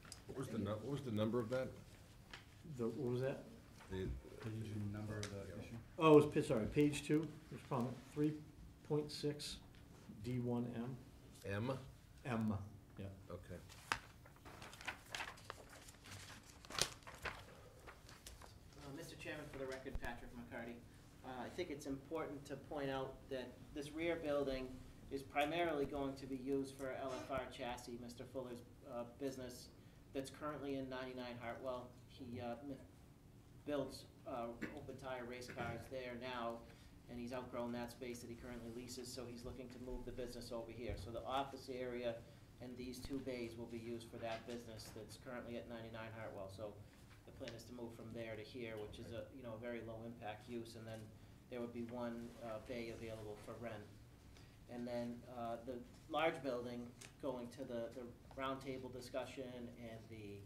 nu, what was the number of that? The, what was that? The- Page and number of the issue? Oh, it was, pa- sorry, page two, it's problem three point six, D one M, M? M, yeah. Okay. Uh, Mr. Chairman, for the record, Patrick McCarty. Uh, I think it's important to point out that this rear building is primarily going to be used for LFR chassis, Mr. Fuller's uh, business that's currently in 99 Hartwell. He uh, m- builds uh, open tire race cars there now, and he's outgrown that space that he currently leases, so he's looking to move the business over here. So the office area and these two bays will be used for that business that's currently at 99 Hartwell. So the plan is to move from there to here, which is a, you know, a very low-impact use, and then there would be one uh, bay available for rent. And then uh, the large building, going to the, the roundtable discussion and the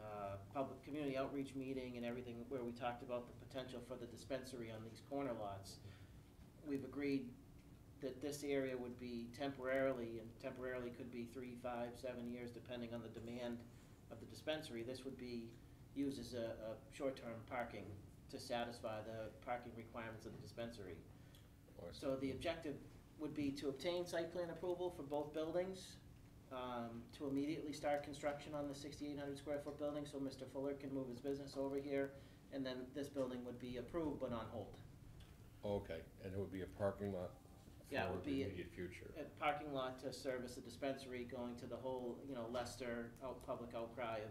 uh, public, community outreach meeting and everything, where we talked about the potential for the dispensary on these corner lots. We've agreed that this area would be temporarily, and temporarily could be three, five, seven years, depending on the demand of the dispensary. This would be used as a, a short-term parking to satisfy the parking requirements of the dispensary. Or- So the objective would be to obtain site plan approval for both buildings, um, to immediately start construction on the 6,800 square foot building, so Mr. Fuller can move his business over here, and then this building would be approved but on hold. Oh, Okay, and it would be a parking lot Yeah, it for would the be- immediate future. A parking lot to service the dispensary, going to the whole, you know, Leicester out, public outcry of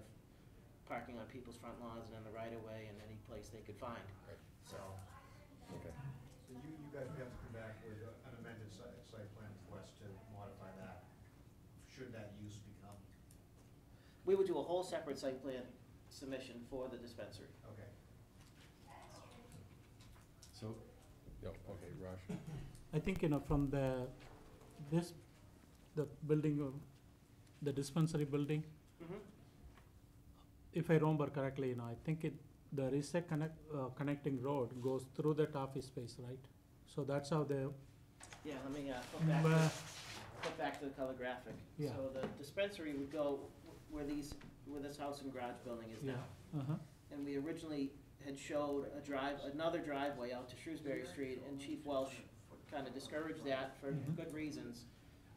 parking on people's front lawns and in the right of way and any place they could find, Right, so. Okay, So you, you guys would have to come back with an amended site, site plan for us to modify that, should that use become, We would do a whole separate site plan submission for the dispensary. okay. So, yeah, okay, Raj, I think, you know, from the, this, the building, uh, the dispensary building, Mhm. if I remember correctly, you know, I think it, there is a connect, uh, connecting road goes through that office space, right? So that's how the, Yeah, let me, uh, go back to uh, Put back to the color graphic. Yeah. So the dispensary would go where these, where this house and garage building is yeah, now. uh-huh, And we originally had showed a drive, another driveway out to Shrewsbury Street, and Chief Welsh kind of discouraged that for Mhm. good reasons.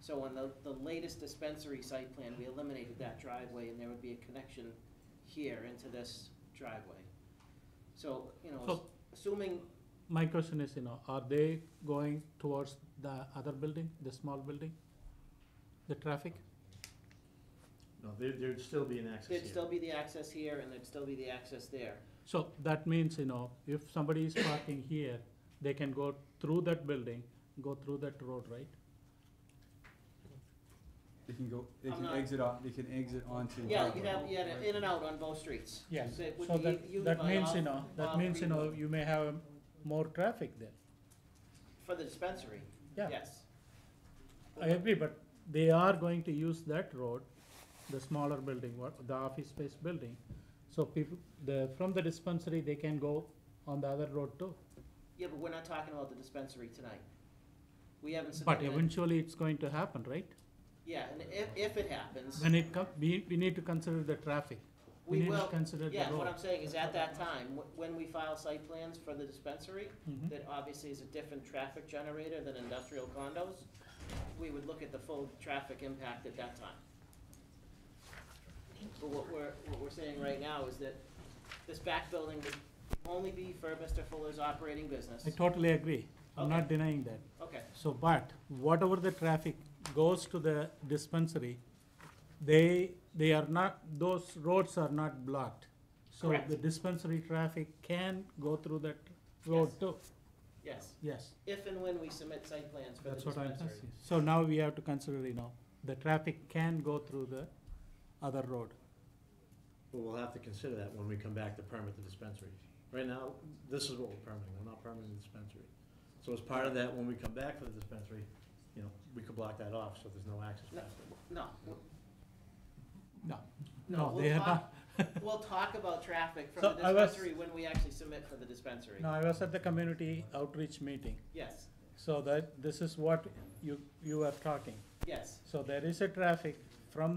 So on the, the latest dispensary site plan, we eliminated that driveway, and there would be a connection here into this driveway. So, you know, So- assuming, my question is, you know, are they going towards the other building, the small building? The traffic? No, there, there'd still be an access here. there'd still be the access here, and there'd still be the access there. So that means, you know, if somebody is parking here, they can go through that building, go through that road, right? they can go, they I'm can not- exit off, they can exit onto. Yeah, Hartwell. you'd have, you had an in and out on both streets. Yes, So it would so be that, used that by means, all- you know, all that means, you know, three- you may have more traffic there. For the dispensary, Yeah, yes. I agree, but they are going to use that road, the smaller building, what, the office space building. So people, the, from the dispensary, they can go on the other road too. Yeah, but we're not talking about the dispensary tonight. We haven't But submitted. it. eventually, it's going to happen, right? Yeah, and if, if it happens, When it come, we, we need to consider the traffic. we need to will, consider the yeah, what road. I'm saying is at that time, wh- when we file site plans for the dispensary, Mhm. that obviously is a different traffic generator than industrial condos, we would look at the full traffic impact at that time. But what we're, what we're saying right now is that this back building would only be for Mr. Fuller's operating business. I totally agree. I'm not Okay. denying that. Okay, So, but whatever the traffic goes to the dispensary, they, they are not, those roads are not blocked. So Correct. the dispensary traffic can go through that road Yes. too. yes, Yes, if and when we submit site plans for the that's what I'm dispensary. saying. So now we have to consider, you know, the traffic can go through the other road. But we'll have to consider that when we come back to permit the dispensary. Right now, this is what we're permitting, we're not permitting the dispensary. So as part of that, when we come back for the dispensary, you know, we could block that off, so there's no access. No, No, we'll- No, No, no, we'll they are talk- not. we'll talk about traffic from So the I was- dispensary when we actually submit for the dispensary. No, I was at the community outreach meeting, Yes, so that, this is what you, you are talking. yes. So there is a traffic from